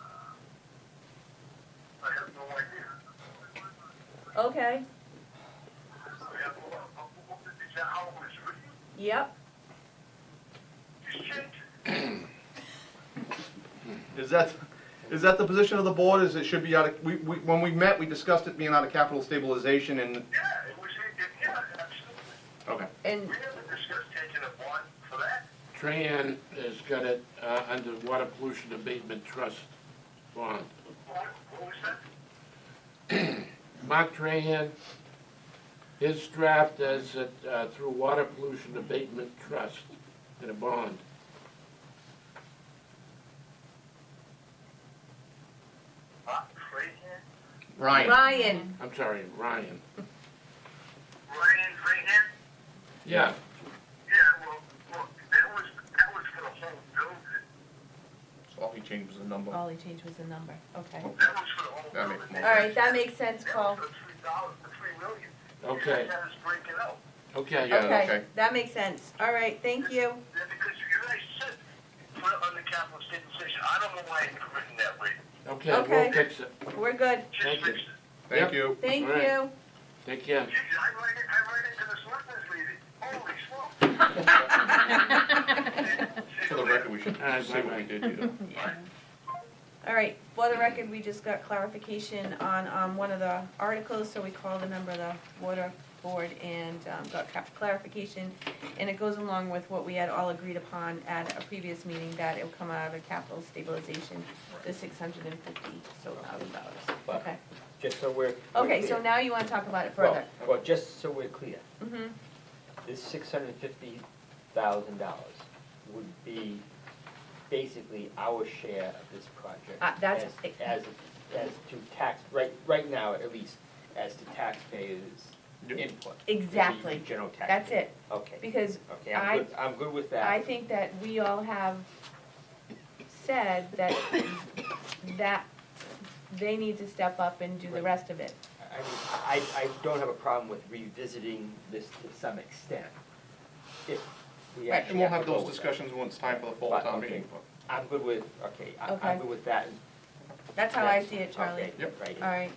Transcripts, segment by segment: uh, Okay, yep, Is that, is that the position of the board, is it should be out of, we, we, when we met, we discussed it being out of capital stabilization and, okay. and, Tran has got it uh, under Water Pollution Abatement Trust bond. Mark Tran, his draft is it uh, through Water Pollution Abatement Trust in a bond. Ryan, Ryan, I'm sorry, Ryan. Yeah, all he changed was the number. Oh. All he changed was the number, okay. all right, that makes sense, Paul. That okay, is breaking out. okay. Yeah, Okay, okay. that makes sense, all right, thank you. Yeah, because you guys said put it on the capital stabilization. I don't know why it's written that way. Okay, Okay. we'll fix it. We're good, Just Thank fix you. it. Thank you. thank All right. you. Take care. Jeez, I write it, I write it to the selectmen's meeting. Holy smoke. For the record, we should All right, say what we bye-bye. did, you know. All right, for the record, we just got clarification on, um, one of the articles, so we called a member of the water board and, um, got cap- clarification. And it goes along with what we had all agreed upon at a previous meeting, that it'll come out of the capital stabilization, the six hundred and fifty, so thousand dollars, But- okay. Just so we're. we're Okay, so clear. now you wanna talk about it Well- further? Well, just so we're clear, hmm this six hundred and fifty thousand dollars would be basically our share of this project. Uh, that's- as- As, as to tax, right, right now at least, as to taxpayers' input. the- the Exactly. General taxpayer. That's it, Okay, because okay, I- I'm good, I'm good with that. I think that we all have said that, that they need to step up and do the Right. rest of it. I mean, I, I don't have a problem with revisiting this to some extent, if we actually Right. And we'll have to go those with that. discussions when it's time for the fall But, town okay. meeting. I'm good with, okay, I- Okay. I'm good with that. That's how I see it, Okay, Charlie. Yep. right. All right,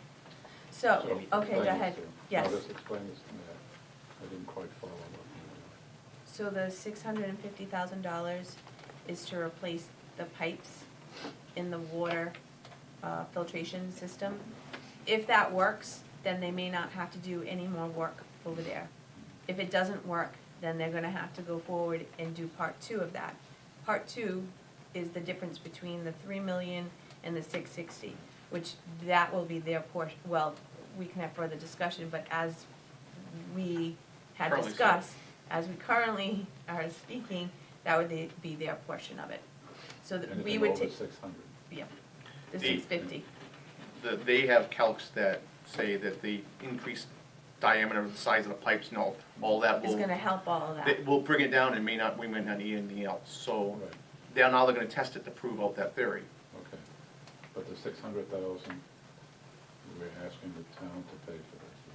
so, So- okay, go ahead. Yes. I'll just explain this to me. I- I didn't quite follow what So the six hundred and fifty thousand dollars is to replace the pipes in the water uh, filtration system. If that works, then they may not have to do any more work over there. If it doesn't work, then they're gonna have to go forward and do part two of that. Part two is the difference between the three million and the six sixty, which that will be their portion, well, we can have further discussion, but as we had Currently so. discussed, as we currently are speaking, that would be- be their portion of it. So you meant. that we Anything would over take, six hundred. yeah, the The- six fifty, The- They have calcs that say that the increased diameter of the size of the pipes and all, all that is will, gonna help all of that. that will bring it down and may not, we may not need anything else. So Right, they're now they're gonna test it to prove out that theory. okay. But the six hundred thousand, we're asking the town to pay for this.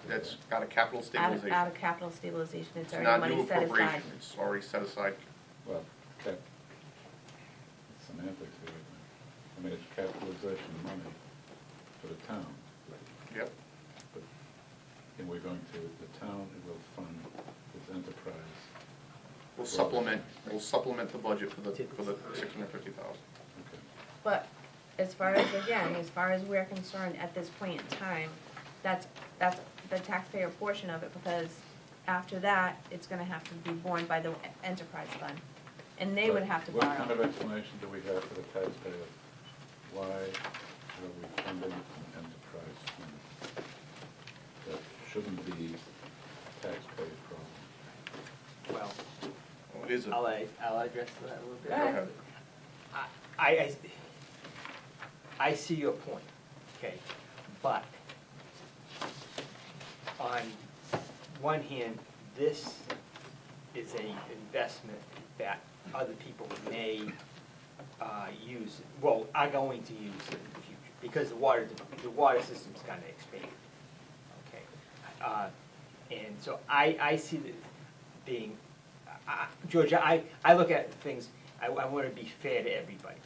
is that That's right? out of capital Out of, stabilization. out of capital stabilization, it's It's already not money new set aside. appropriation, it's already set aside. Well, cap, semantics here, isn't it? I mean, it's capitalization money for the town, Yep. but, and we're going to, the town will fund this enterprise. We'll supplement, we'll supplement the budget for the, for the six hundred fifty thousand. Okay, But as far as, again, as far as we're concerned at this point in time, that's, that's the taxpayer portion of it, because after that, it's gonna have to be borne by the enterprise fund, and they would But have to What kind of borrow. explanation do we have for the taxpayer? Why are we funding an enterprise fund? That shouldn't be a taxpayer problem. Well, Well, it is a, I'll, a- I'll address that a little bit. Go ahead. I, I, I see your point, okay, but on one hand, this is a investment that other people may, uh, use, well, are going to use in the future, because the water, the water system's gonna expand, okay? Uh, and so I, I see uh, that being, I- I- Georgia, I, I look at things, I, I wanna be fair to everybody,